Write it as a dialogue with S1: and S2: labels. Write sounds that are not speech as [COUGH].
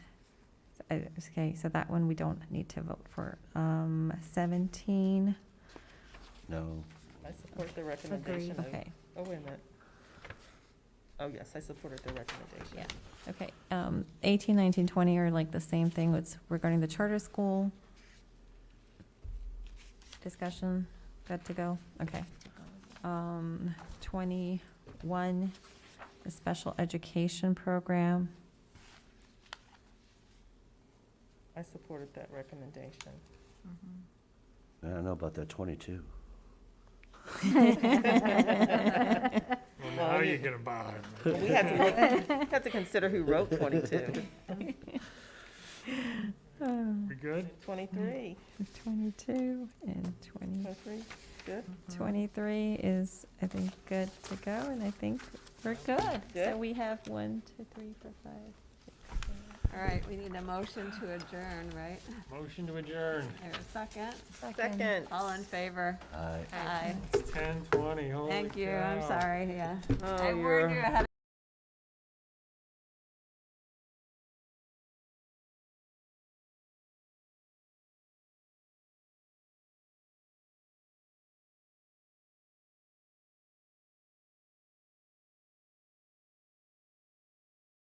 S1: uh, okay, so that one we don't need to vote for. Um, seventeen,
S2: No.
S3: I support the recommendation of,
S1: okay,
S3: oh, wait a minute. Oh, yes, I supported the recommendation.
S1: Yeah. okay. Um, eighteen, nineteen, twenty are like the same thing, it's regarding the charter school. Discussion, good to go, okay. Um, twenty-one, the special education program. [LAUGHS]
S3: I supported that recommendation.
S2: I don't know about that 22.
S4: Well,
S3: Well,
S4: now
S3: you-
S4: you're gonna buy
S3: Well, We had to
S4: [LAUGHS]
S3: look, we had to consider who
S5: [LAUGHS]
S3: wrote 22.
S1: Um,
S4: We good?
S3: 23,
S5: Mm-hmm.
S1: 22 and 20.
S3: 23, good.
S1: 23 Mm-hmm. is, I think, good to go, and I think we're good. So
S3: Good.
S1: we have one, two, three, four, five, six, seven.
S5: All right, we need a motion to adjourn, right?
S4: Motion to adjourn,
S5: There's a second.
S3: Second,
S5: All in favor?
S2: I.
S5: Aye.
S4: ten twenty, holy
S5: Thank you, I'm
S4: cow.
S5: sorry, yeah.
S3: Oh,
S5: I warned
S3: you're-
S5: you ahead